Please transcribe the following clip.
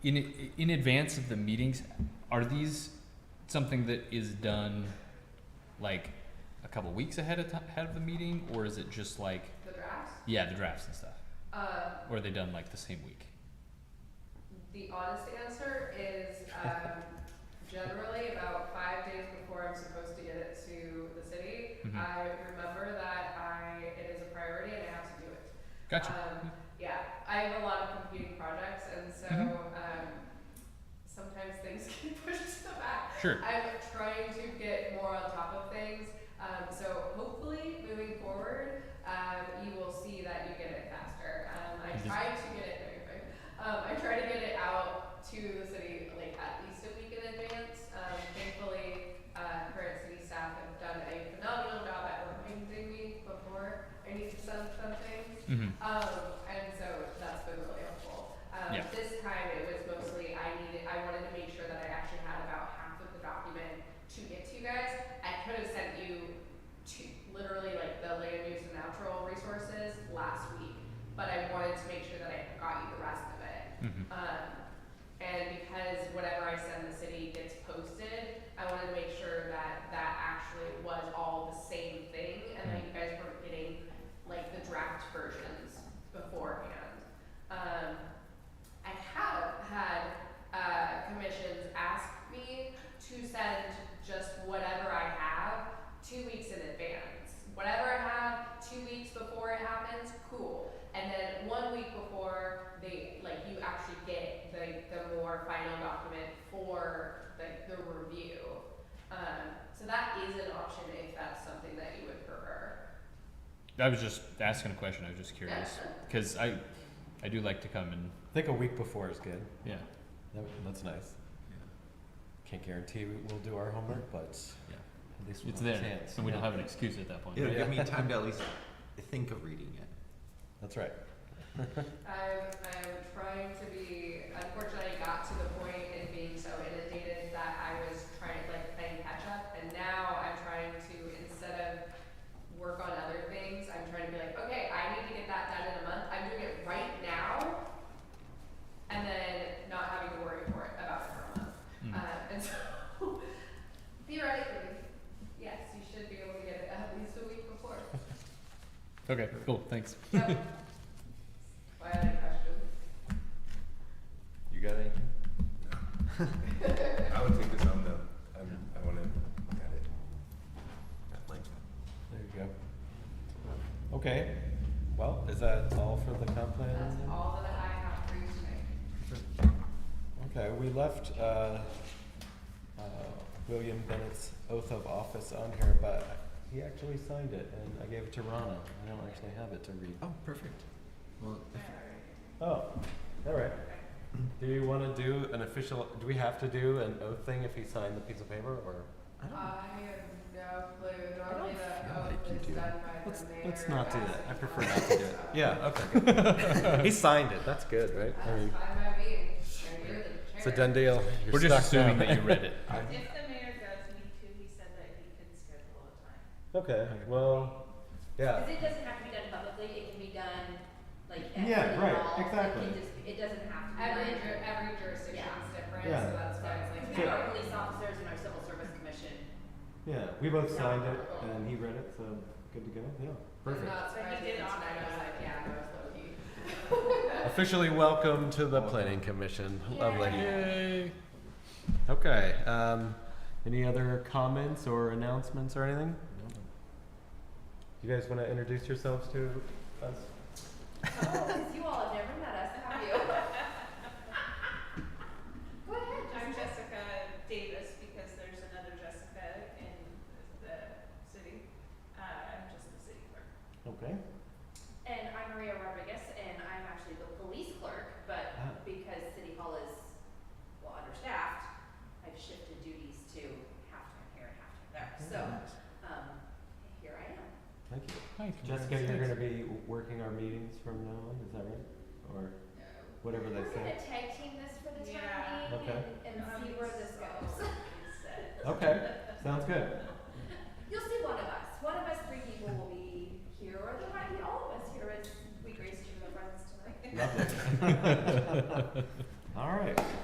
in in advance of the meetings, are these something that is done like a couple weeks ahead of ti ahead of the meeting, or is it just like The drafts, yeah, the drafts and stuff, uh, or are they done like the same week? the honest answer is, um, generally about five days before I'm supposed to get it to the city, Mhm. I remember that I, it is a priority and I have to do it. Gotcha. Um, yeah, I have a lot of competing projects and so, Mhm. um, sometimes things get pushed to the back. Sure. I'm trying to get more on top of things. Um, so hopefully, moving forward, um, you will see that you get it faster. Um, I Does- try to get it. no, you're fine. Um, I try to get it out to the city like at least a week in advance. Um, thankfully, uh, current city staff have done a phenomenal job at reminding me before I need to send something. hmm Um, and so that's been really helpful. Um, Yeah. This time it was mostly I needed, I wanted to make sure that I actually had about half of the document to get to you guys. I could have sent you to literally like the land use and natural resources last week, but I wanted to make sure that I got you the rest of it. hmm Um, and because whatever I send the city gets posted, I wanted to make sure that that actually was all the same thing and that you guys weren't getting like the draft versions beforehand. Um, I have had, uh, commissions ask me to send just whatever I have two weeks in advance. Whatever I have two weeks before it happens, cool. And then one week before they like you actually get the the more final document for like the review. Um, so that is an option if that's something that you would prefer. I was just asking a question. I was just curious because I I do like to come and I think a week before is good. yeah. That, that's nice. Can't guarantee we- we'll do our homework, but Yeah. at least we'll It's have a there, chance. and we don't Yeah. have an excuse at that point. It'll Yeah. give me time to at least think of reading it. That's right. I'm, Um, I'm trying to be, unfortunately, I got to the point in being so inundated that I was trying, like, playing catch up, and now I'm trying to, instead of work on other things, I'm trying to be like, okay, I need to get that done in a month, I'm doing it right now, and then not having to worry for it, about it for a month. Mm. Uh, and so, theoretically, yes, you should be able to get it at least a week before. Okay. Cool. Thanks. Yep. Why are there questions? You got any? I would take this on though. I'm, I want to look at it at length. There you go. Okay. Well, is that all for the comp plan? That's all that I have for you tonight. Okay, we left uh, uh, William Bennett's oath of office on here, but he actually signed it, and I gave it to Rana. I don't actually have it to read. Oh, perfect. Well, Oh, all right. Do you want to do an official? Do we have to do an oath thing if he signed the piece of paper, or I don't, I have no clue, I don't normally the feel like oath you is do. done by the Let's- mayor. let's not do as that. I a prefer not to do it. bylaw. yeah? Okay. he signed it. That's good, right? I That's mean, fine by me, and you're the chair. it's a done deal. You're We're just stuck now. assuming that you read it. If the mayor does need to, he said that he can schedule a time. okay. Well, yeah. Because it doesn't have to be done publicly, it can be done like at Yeah, City right, Hall. It exactly. can just- It doesn't have to be. Every, done. ju- every jurisdiction's different, Yeah. so that's why it's like. Like, we have our police officers and our civil service commission, Yeah, we both signed it, and he read it, so good to go. Yeah. I'm perfect. not So he surprised did that offer tonight, I was us like, that. yeah, no, it's low key. Officially welcome to the planning commission. Lovely. Yay. Okay. Um, any other comments or announcements or anything? You guys want to introduce yourselves to us? Oh, because you all have never met us, have you? Go ahead, I'm Jessica Davis because there's another Jessica in the city. Uh, I'm just the city clerk. Okay. And I'm Maria Rodriguez, and I'm actually the police clerk, but Ah. because City Hall is, well, understaffed, I've shifted duties to halftime here and halftime there, so, um, here I am. Thank you. Hi, Jessica, you're gonna be working our meetings from now on, is that right? Or whatever they We're say? gonna tag team this for the Yeah. time being Okay. and, and Um, see where this goes. Okay, sounds good. You'll see one of us, one of us three people will be here, or there might be all of us here as we grace you with presence tonight. Lovely. All right.